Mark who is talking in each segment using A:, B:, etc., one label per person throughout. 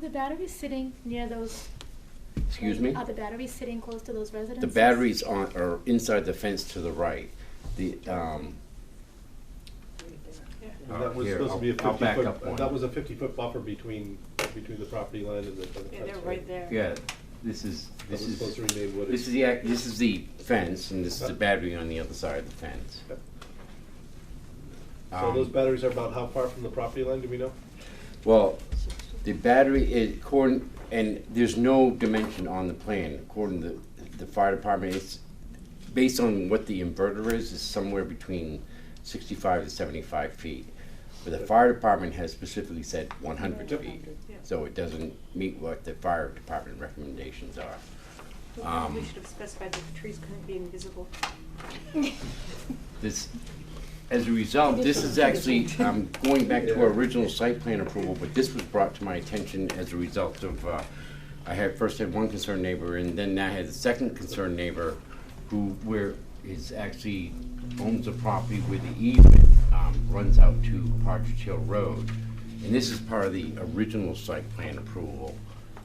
A: the batteries sitting near those?
B: Excuse me?
A: Are the batteries sitting close to those residences?
B: The batteries on, are inside the fence to the right. The, um,
C: And
B: Uh,
C: That was
B: Oh, Here,
C: supposed to be a
B: I'll- I'll back
C: fifty
B: up one.
C: foot, that was a fifty foot buffer between, between the property line and the. and the
D: Yeah, they're
C: fence,
D: right there.
B: yeah, this is,
C: That
B: this
C: was supposed
B: is,
C: to remain what it
B: this is
C: is.
B: the, ac- this is the fence, and this is the battery on the other side of the fence.
C: Yep. So
B: Um,
C: those batteries are about how far from the property line, do we know?
B: Well, the battery is according, and there's no dimension on the plan, according to the fire department, it's based on what the inverter is, is somewhere between sixty-five to seventy-five feet. But the fire department has specifically said one hundred
C: Yep.
B: feet,
D: Yeah.
B: so it doesn't meet what the fire department recommendations are.
D: We should have specified that the trees couldn't be invisible.
B: This, as a result, this is actually, I'm going back to our original site plan approval, but this was brought to my attention as a result of, uh, I had, first had one concerned neighbor, and then I had a second concerned neighbor who, where is actually owns a property where the easement, um, runs out to Partridge Hill Road. And this is part of the original site plan approval.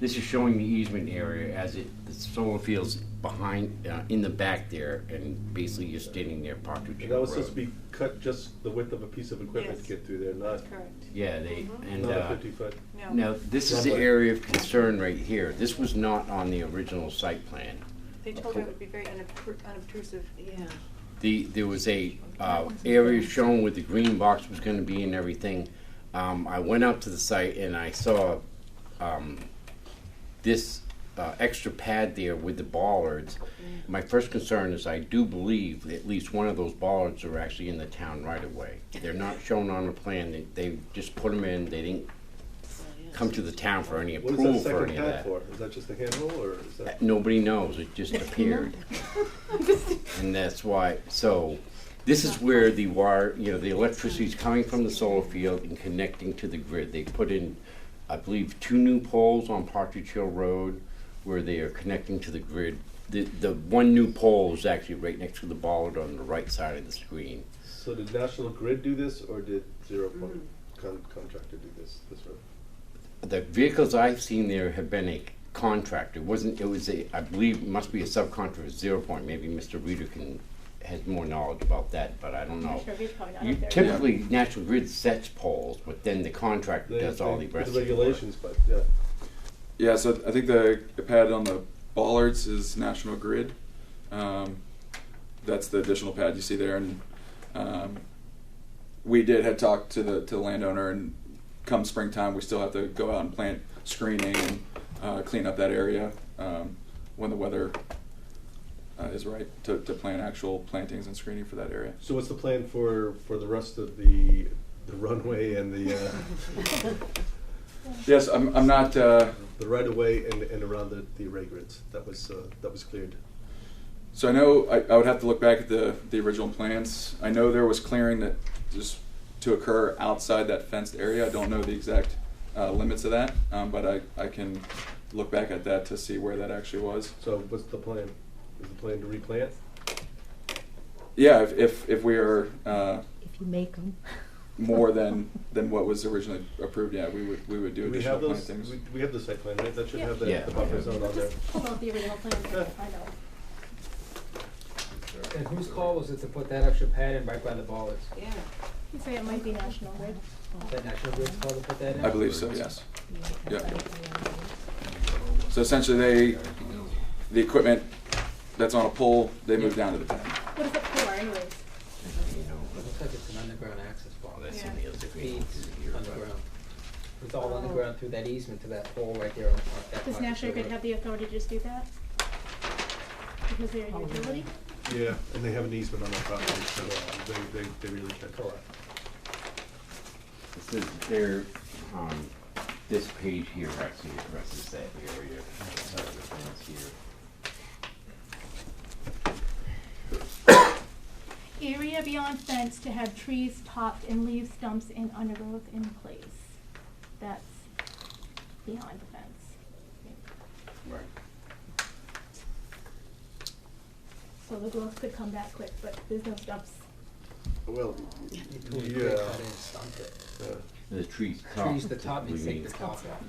B: This is showing the easement area as it, the solar field's behind, uh, in the back there, and basically you're standing there Partridge
C: And
B: Hill
C: that
B: Road.
C: was supposed to be cut just the width of a piece of equipment to
D: Yes.
C: get through there, not,
D: Correct.
B: Yeah, they, and,
C: not a
B: uh,
C: fifty foot.
D: No.
B: now, this is the
C: Lovely.
B: area of concern right here. This was not on the original site plan.
D: They told her it would be very unobtru- unobtrusive.
E: Yeah.
B: The, there was a, uh, area shown where the green box was gonna be and everything. Um, I went out to the site and I saw, um, this, uh, extra pad there with the bollards. My first concern is I do believe that at least one of those bollards are actually in the town right away. They're not shown on the plan. They, they just put them in. They didn't come to the town for any
C: What is that
B: approval for
C: second
B: any of
C: pad
B: that.
C: for? Is that just a handle or is that?
B: Uh, Nobody knows. It just appeared. and that's why. So, this is where the wire, you know, the electricity is coming from the solar field and connecting to the grid. They put in, I believe, two new poles on Partridge Hill Road where they are connecting to the grid. The, the one new pole is actually right next to the bollard on the right side of the screen.
C: So did National Grid do this or did Zero Point
D: Mm-hmm.
C: Con- Contractor do this, this road?
B: The vehicles I've seen there have been a contractor, It wasn't, it was a, I believe, it must be a subcontractor of Zero Point, maybe Mr. Reader can, has more knowledge about that, but I don't know.
A: Sure, we're probably not
B: You
A: up there.
B: Typically, National Grid sets poles, but then the contractor
C: They-
B: does all
C: they-
B: the rest of
C: The
B: the work.
C: regulations, but, yeah.
F: Yeah, so I think the, the pad on the bollards is National Grid. Um, that's the additional pad you see there, and um, we did had talked to the to the landowner, and come springtime we still have to go out and plant screening and uh, clean up that area um, when the weather uh, is right to, to plant actual plantings and screening for that area.
C: So what's the plan for, for the rest of the, the runway and the, uh,
F: Yes, I'm, I'm not. Uh,
C: the right of way and, and around the, the array grids? That was, uh, that was cleared.
F: So I know I, I would have to look back at the, the original plans. I know there was clearing that just to occur outside that fenced area. I don't know the exact uh, limits of that, um, but I, I can look back at that to see where that actually was.
C: So what's the plan? Is the plan to replant?
F: Yeah, if, if, if we are uh,
E: If you make them.
F: more than, than what was originally approved, yeah, we would we would do
C: Do we
F: additional
C: have those,
F: plantings.
C: we, we have the site plan, right? That should
A: Yeah.
C: have the,
B: Yeah.
C: the buffer zone
A: We'll
C: on there.
A: just pull out the original plan,
C: Yeah.
A: I know.
G: And whose call was it to put that extra pad in right by the bollards?
D: Yeah.
A: You say it might be National Grid.
G: Was that National Grid's call to put that in?
F: I believe so, yes. Yeah. So essentially, they the equipment that's on a pole, they move down to the pad.
A: What is it for anyways?
G: Looks like it's an underground access
B: Oh,
G: bar.
B: that's
D: Yeah.
B: in the other green.
G: Feeds
B: You're right.
G: underground. It's all underground through that easement to that pole right there on on that.
A: Oh. Does
G: part of
A: National
G: the
A: Grid have the authority to just do that? Because they're a utility?
C: Yeah, and they have an easement on their property, so uh, they, they, they really can't. Correct.
B: This is their, um, this page here actually addresses that area. outside of the fence here.
A: Area beyond fence to have trees topped and leaf stumps and undergrowth in place. That's beyond the fence.
B: Right.
A: So the growth could come back quick, but there's no stumps.
C: Well,
G: road. You
C: yeah.
G: totally cut that in, sunk it.
C: yeah.
B: The trees top.
G: Trees, the top,
B: we
G: needs to take
B: mean.
G: the top off.